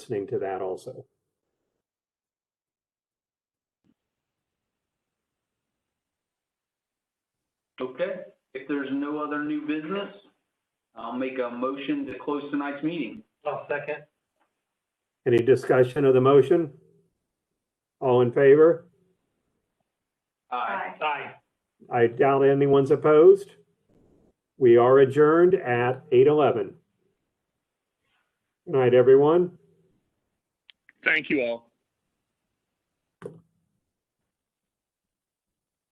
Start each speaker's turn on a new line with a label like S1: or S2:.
S1: listening to that also.
S2: Okay, if there's no other new business, I'll make a motion to close tonight's meeting.
S3: I'll second.
S1: Any discussion of the motion? All in favor?
S2: Aye.
S4: Aye.
S3: Aye.
S1: I doubt anyone's opposed. We are adjourned at 8:11. Good night, everyone.
S5: Thank you all.